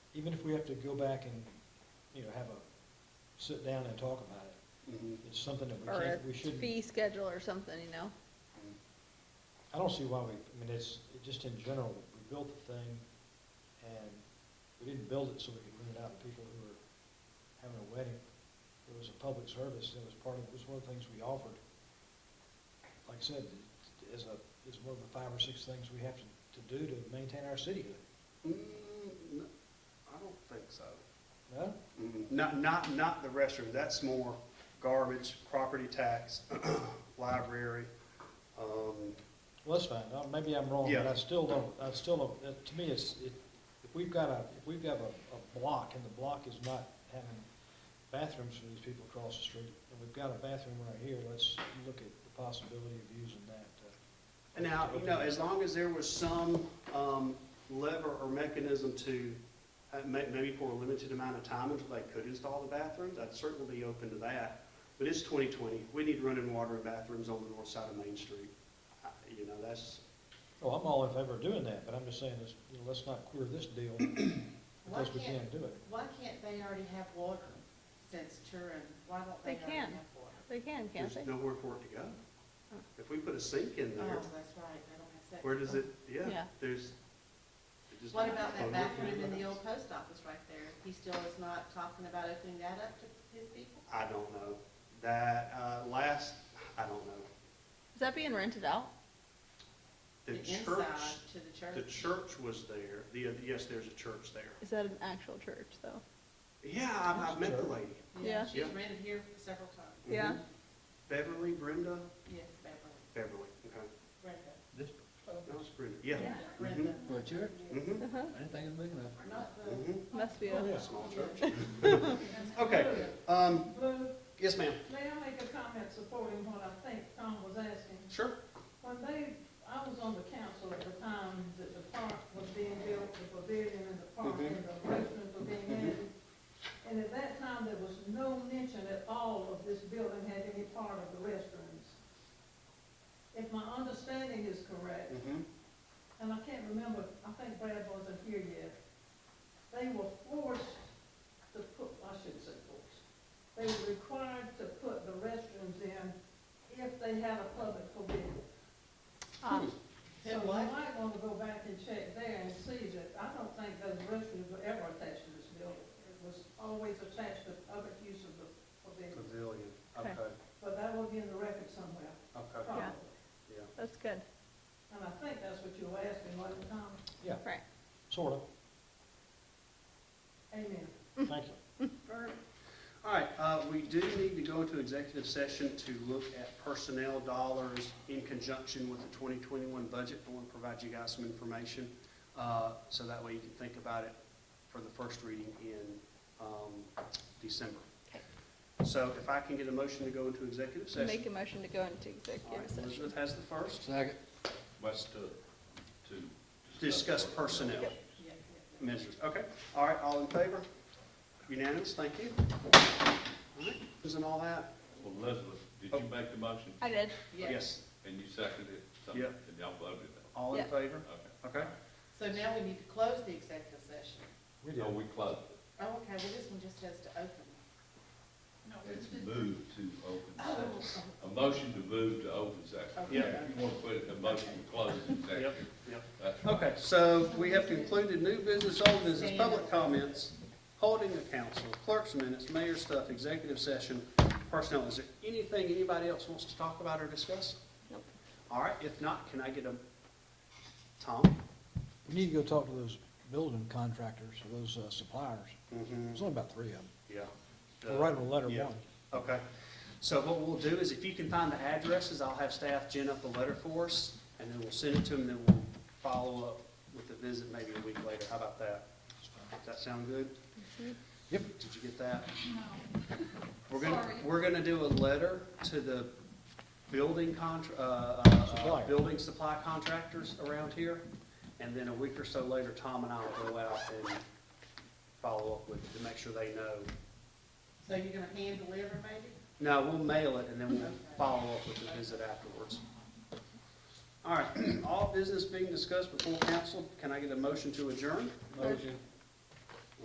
even if we have to go back and, you know, have a, sit down and talk about it, Mhm. it's something that we or can't, a we shouldn't. fee schedule or something, you know? I don't see why we, I mean, it's, it just in general, we built the thing, and we didn't build it so we could rent it out to people who were having a wedding. It was a public service, and it was part of, it was one of the things we offered. Like I said, is a, is one of the five or six things we have to, to do to maintain our cityhood, Mm, no, I don't think so. no? Mm, Not, not, not the restroom, that's more garbage, property tax, library, um, Well, that's fine, Uh, maybe I'm wrong, but Yeah. I still don't, I still don't, uh, to me, it's, it- if we've got a, if we've got a, a block, and the block is not having bathrooms for these people across the street, and we've got a bathroom right here, let's look at the possibility of using that. uh, And Now, you know, as long as there was some um, lever or mechanism to, uh, ma- maybe for a limited amount of time until they could install the bathrooms, I'd certainly be open to that. But it's 2020, we need running water and bathrooms on the north side of Main Street. I- You know, that's, Oh, I'm all in favor of doing that, but I'm just saying, let's, you know, let's not queer this deal, Why because we can't, can't do it. why can't they already have water since Turin? Why don't They they already have can. water? They can, can't there's they? nowhere for it to go. If we put a sink in Oh, there, that's right, they don't have that. where does it, yeah, Yeah. there's. it just- What about that Oh, bathroom in the old post office right there? He still is not talking about opening that up to his people? I don't know. That uh, last, I don't know. Is that being rented out? The inside church to the church? The church was there, the, yes, there's a church there. Is that an actual church, though? Yeah, I, I met the lady, Yeah. She's Yeah. rented here several times. Yeah. Beverly, Brenda, Yes, Beverly, Beverly, okay, Brenda, This, that was Brenda, yeah. Yeah. Brenda. for a church? Mm-hmm, Uh-huh. I didn't think it was big enough. Not the. mm-hmm, Must be Oh, a, yeah. small church. Okay, um, Lou, yes, ma'am, may I make a comment supporting what I think Tom was asking? sure, When they, I was on the council at the time that the park was being built, the pavilion and the park Mhm. and the restrooms were being added. And at that time, there was no mention at all of this building had any part of the restrooms. If my understanding is correct, mm-hmm, and I can't remember, I think Brad wasn't here yet, they were forced to put, I shouldn't say forced, they were required to put the restrooms in if they had a public pavilion. ah, So you might want to go back and check there and see that, I don't think those restrooms were ever attached to this building. It was always attached to other use of the pavilion, pavilion, okay, Okay. but that will be in the record somewhere, okay, probably. Yeah. yeah. that's good. And I think that's what you were asking, wasn't it, Tom? Yeah, Right. sort of, Amen. thank you. All right, uh, we do need to go into executive session to look at personnel dollars in conjunction with the twenty twenty-one budget. I want to provide you guys some information, uh, so that way you can think about it for the first reading in, um, December. So if I can get a motion to go into executive session. Make a motion to go All into right, executive session. Elizabeth has the first. Second. What's to, to? Discuss personnel Yeah, yeah. measures. Okay, all right, all in favor? Unanimous, thank you. All right, Isn't all that? Well, Elizabeth, did Oh. you make the motion I did. Yes, and you seconded it? So- Yeah. And y'all voted all in Yeah. favor? it? Okay. Okay. So now we need to close the executive session. We No, did, we closed Oh, okay, well, this one just has to open. it. It's moved to open Oh, session. A motion to move to open session. Okay. Yeah, if you want to put it in a motion to close executive. Yep. That's right. Okay, so we have concluded new business, old business, public comments, holding the council, clerk's minutes, mayor stuff, executive session, personnel. Is there anything anybody else wants to talk about or discuss? Nope. All right, if not, can I get a, Tom? we need to go talk to those building contractors, those uh, suppliers, Mm-hmm. there's only about three of them, Yeah. we'll write them a letter Yeah. one. Okay. So what we'll do is if you can find the addresses, I'll have staff gin up a letter for us, and then we'll send it to them, then we'll follow up with the visit maybe a week later. How about that? Does that sound good? Yep. Did you get that? No. We're gonna, we're gonna do a letter to the building contra, uh, uh, uh, Supplier. building supply contractors around here. And then a week or so later, Tom and I will go out and follow up with, to make sure they know. So you're gonna hand deliver maybe? No, we'll mail it and then we'll follow up with the visit afterwards. All right, all business being discussed before council, can I get a motion to adjourn? Motion.